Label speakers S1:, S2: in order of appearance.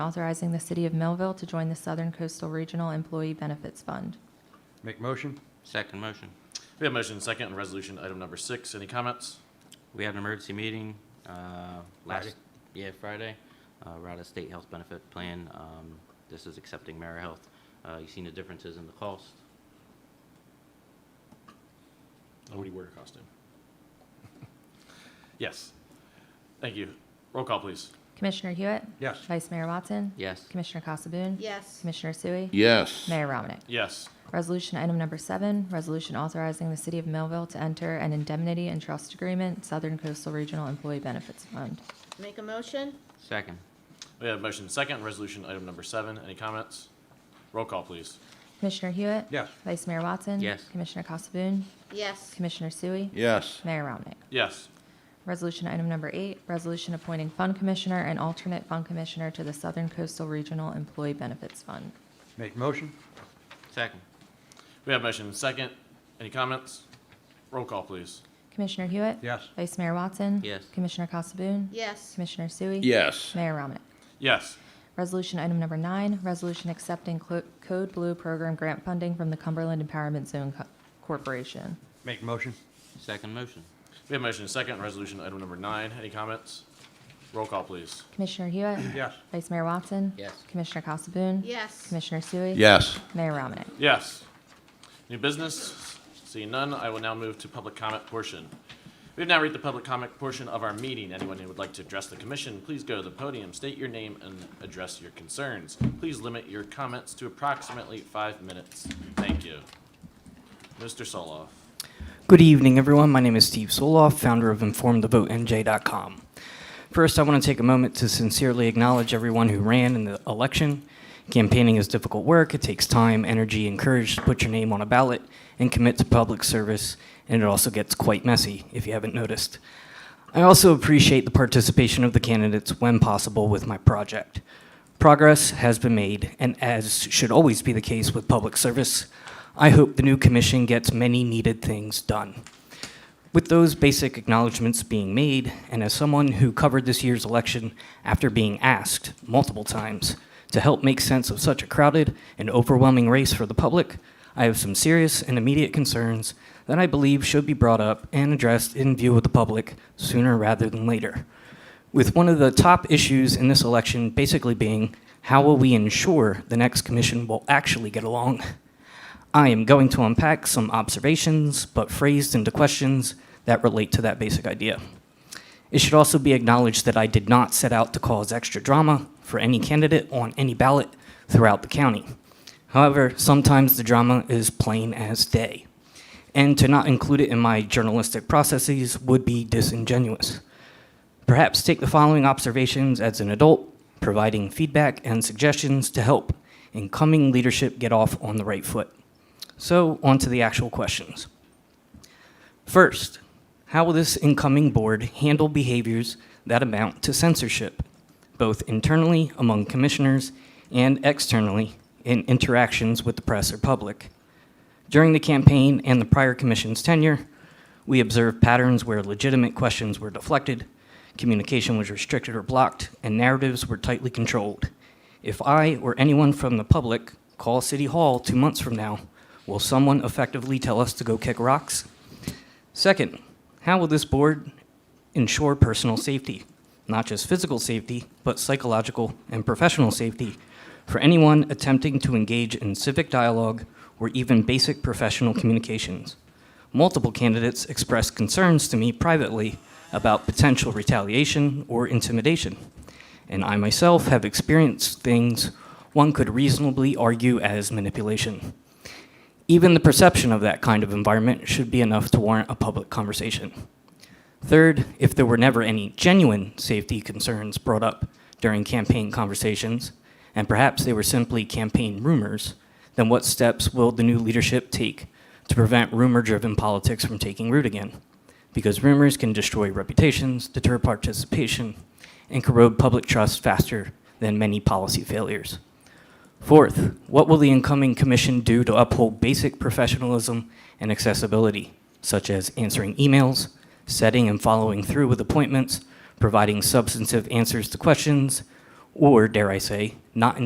S1: authorizing the City of Millville to join the Southern Coastal Regional Employee Benefits Fund.
S2: Make motion?
S3: Second motion.
S4: We have motion and second on resolution item number six. Any comments?
S3: We had an emergency meeting, uh,
S2: Friday.
S3: last, yeah, Friday, uh, around the state health benefit plan. Um, this is accepting Mara Health. Uh, you seen the differences in the cost?
S4: Nobody Oh, wear a costume. Yes. Thank you. Roll call, please.
S1: Commissioner Hewitt?
S2: Yes.
S1: Vice Mayor Watson?
S3: Yes.
S1: Commissioner Casabun?
S5: Yes.
S1: Commissioner Sui?
S6: Yes.
S1: Mayor Ramnick?
S4: Yes.
S1: Resolution item number seven, resolution authorizing the City of Millville to enter an indemnity and trust agreement, Southern Coastal Regional Employee Benefits Fund.
S5: Make a motion?
S3: Second.
S4: We have motion and second on resolution item number seven. Any comments? Roll call, please.
S1: Commissioner Hewitt?
S2: Yes.
S1: Vice Mayor Watson?
S3: Yes.
S1: Commissioner Casabun?
S5: Yes.
S1: Commissioner Sui?
S6: Yes.
S1: Mayor Ramnick?
S4: Yes.
S1: Resolution item number eight, resolution appointing fund commissioner and alternate fund commissioner to the Southern Coastal Regional Employee Benefits Fund.
S2: Make motion?
S3: Second.
S4: We have motion and second. Any comments? Roll call, please.
S1: Commissioner Hewitt?
S2: Yes.
S1: Vice Mayor Watson?
S3: Yes.
S1: Commissioner Casabun?
S5: Yes.
S1: Commissioner Sui?
S6: Yes.
S1: Mayor Ramnick?
S4: Yes.
S1: Resolution item number nine, resolution accepting Clo- Code Blue Program grant funding from the Cumberland Empowerment Zone Co- Corporation.
S2: Make motion?
S3: Second motion.
S4: We have motion and second on resolution item number nine. Any comments? Roll call, please.
S1: Commissioner Hewitt?
S2: Yes.
S1: Vice Mayor Watson?
S3: Yes.
S1: Commissioner Casabun?
S5: Yes.
S1: Commissioner Sui?
S6: Yes.
S1: Mayor Ramnick?
S4: Yes. New business, seeing none, I will now move to public comment portion. We've now reached the public comment portion of our meeting. Anyone who would like to address the commission, please go to the podium, state your name, and address your concerns. Please limit your comments to approximately five minutes. Thank you. Mr. Soloff.
S7: Good evening, everyone. My name is Steve Soloff, founder of InformTheVoteNJ.com. First, I want to take a moment to sincerely acknowledge everyone who ran in the election. Campaigning is difficult work. It takes time, energy, and courage to put your name on a ballot and commit to public service, and it also gets quite messy, if you haven't noticed. I also appreciate the participation of the candidates when possible with my project. Progress has been made, and as should always be the case with public service, I hope the new commission gets many needed things done. With those basic acknowledgments being made, and as someone who covered this year's election after being asked multiple times to help make sense of such a crowded and overwhelming race for the public, I have some serious and immediate concerns that I believe should be brought up and addressed in view of the public sooner rather than later. With one of the top issues in this election basically being how will we ensure the next commission will actually get along? I am going to unpack some observations, but phrased into questions that relate to that basic idea. It should also be acknowledged that I did not set out to cause extra drama for any candidate on any ballot throughout the county. However, sometimes the drama is plain as day, and to not include it in my journalistic processes would be disingenuous. Perhaps take the following observations as an adult, providing feedback and suggestions to help incoming leadership get off on the right foot. So, on to the actual questions. First, how will this incoming board handle behaviors that amount to censorship, both internally among commissioners and externally in interactions with the press or public? During the campaign and the prior commission's tenure, we observed patterns where legitimate questions were deflected, communication was restricted or blocked, and narratives were tightly controlled. If I or anyone from the public call City Hall two months from now, will someone effectively tell us to go kick rocks? Second, how will this board ensure personal safety, not just physical safety, but psychological and professional safety for anyone attempting to engage in civic dialogue or even basic professional communications? Multiple candidates expressed concerns to me privately about potential retaliation or intimidation, and I myself have experienced things one could reasonably argue as manipulation. Even the perception of that kind of environment should be enough to warrant a public conversation. Third, if there were never any genuine safety concerns brought up during campaign conversations, and perhaps they were simply campaign rumors, then what steps will the new leadership take to prevent rumor driven politics from taking root again? Because rumors can destroy reputations, deter participation, and corrode public trust faster than many policy failures. Fourth, what will the incoming commission do to uphold basic professionalism and accessibility, such as answering emails, setting and following through with appointments, providing substantive answers to questions, or, dare I say, not